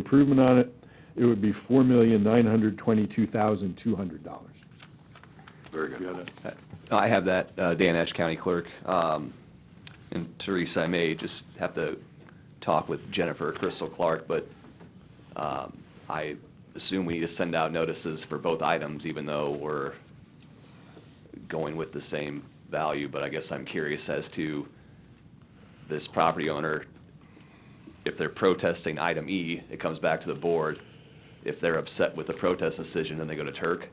improvement on it, it would be four million, nine hundred twenty-two thousand, two hundred dollars. Very good. Uh, I have that, uh, Dan Ash, County Clerk. Um, And Teresa, I may just have to talk with Jennifer Crystal Clark, but um, I assume we need to send out notices for both items, even though we're going with the same value. But I guess I'm curious as to this property owner, if they're protesting item E, it comes back to the board. If they're upset with the protest decision, then they go to Turk,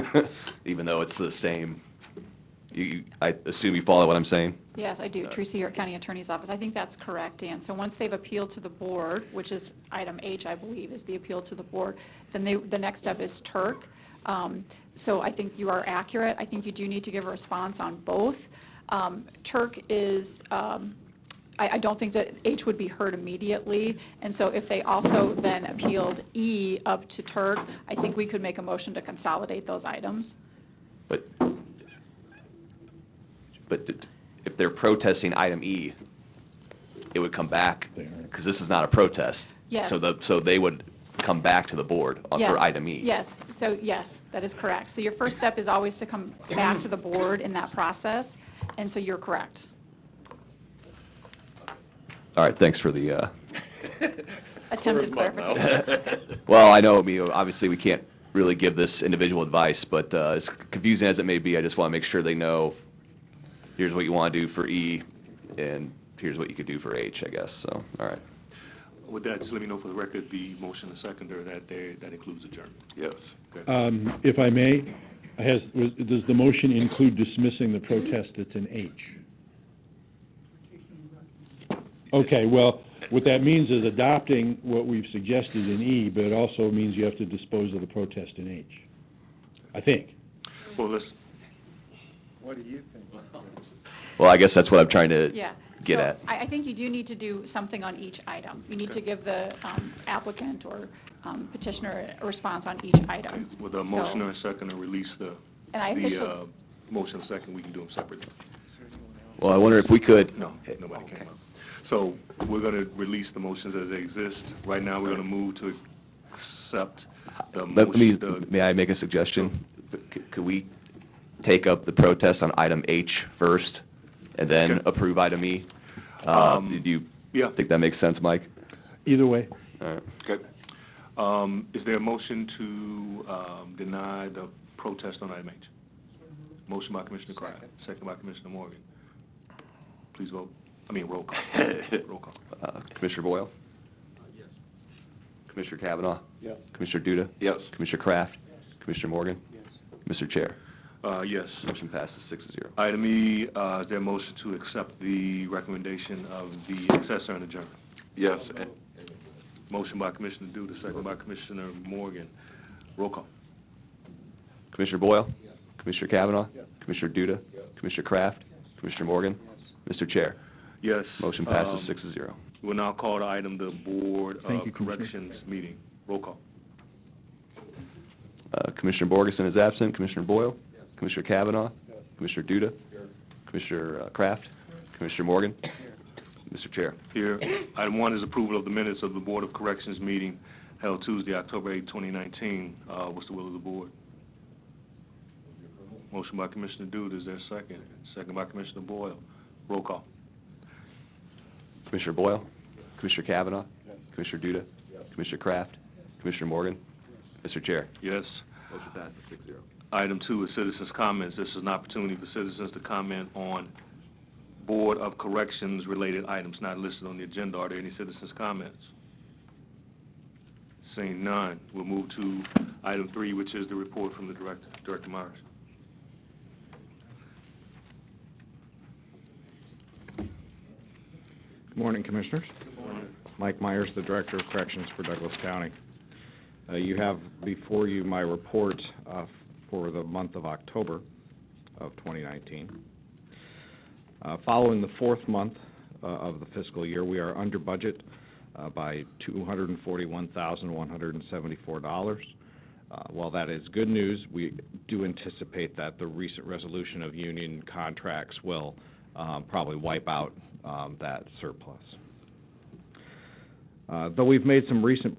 even though it's the same. You- You, I assume you follow what I'm saying? Yes, I do. Teresa, your county attorney's office. I think that's correct, Dan. So once they've appealed to the board, which is item H, I believe, is the appeal to the board, then they, the next step is Turk. Um, So I think you are accurate. I think you do need to give a response on both. Um, Turk is, um, I, I don't think that H would be heard immediately. And so if they also then appealed E up to Turk, I think we could make a motion to consolidate those items. But, but th- if they're protesting item E, it would come back, because this is not a protest. Yes. So the, so they would come back to the board on- Yes, for item E. Yes, so yes, that is correct. So your first step is always to come back to the board in that process, and so you're correct. All right, thanks for the, uh, Attempted clarification. well, I know, I mean, obviously, we can't really give this individual advice, but uh, as confusing as it may be, I just want to make sure they know, here's what you want to do for E, and here's what you could do for H, I guess, so, all right. With that, just let me know for the record, the motion and seconder that there, that includes adjournment. Yes. If I may, has, was- does the motion include dismissing the protest that's in H? Okay, well, what that means is adopting what we've suggested in E, but it also means you have to dispose of the protest in H, I think. Well, let's, What do you think? Well, I guess that's what I'm trying to Yeah. get So at. I, I think you do need to do something on each item. You need to give the um, applicant or um, petitioner a response on each item. with a So- motion and seconder, release the, And I the, officially- uh, motion and second, we can do them separately. Well, I wonder if we could. No, nobody came up. So we're gonna release the motions as they exist. Right now, we're gonna move to accept the Let me, motion, the- may I make a suggestion? C- Could we take up the protest on item H first and then Okay. approve item E? Uh, Do you Um, yeah. think that makes sense, Mike? Either way, Okay. Um, is there a motion to, um, deny the protest on item H? Motion by Commissioner Cryer, second by Commissioner Morgan. Please vote, I mean, roll call, roll call. Uh, Commissioner Boyle? Yes. Commissioner Kavanaugh? Yes. Commissioner Duda? Yes. Commissioner Kraft? Commissioner Morgan? Mr. Chair, Uh, yes. motion passes six to zero. Item E, uh, is there a motion to accept the recommendation of the assessor and adjourn? Yes, and- Motion by Commissioner Duda, second by Commissioner Morgan. Roll call. Commissioner Boyle? Yes. Commissioner Kavanaugh? Yes. Commissioner Duda? Yes. Commissioner Kraft? Commissioner Morgan? Mr. Chair, Yes. motion passes um, six to zero. We'll now call the item the Board Thank of you, Commissioner. Corrections meeting. Roll call. Uh, Commissioner Borgeson is absent. Commissioner Boyle? Commissioner Kavanaugh? Commissioner Duda? Commissioner uh, Kraft? Commissioner Morgan? Mr. Chair. Here, item one is approval of the minutes of the Board of Corrections meeting held Tuesday, October 8, 2019. Uh, What's the will of the board? Motion by Commissioner Duda, is there a second? Second by Commissioner Boyle. Roll call. Commissioner Boyle? Commissioner Kavanaugh? Commissioner Duda? Commissioner Kraft? Commissioner Morgan? Mr. Chair. Yes. Motion passes six zero. Item two is citizens' comments. This is an opportunity for citizens to comment on Board of Corrections-related items not listed on the agenda. Are there any citizens' comments? Seeing none, we'll move to item three, which is the report from the director, Director Myers. Morning, Commissioners. Mike Myers, the Director of Corrections for Douglas County. Uh, You have before you my report uh, for the month of October of 2019. Uh, Following the fourth month uh, of the fiscal year, we are under budget uh, by $241,174. Uh, While that is good news, we do anticipate that the recent resolution of union contracts will um, probably wipe out um, that surplus. Uh, Though we've made some recent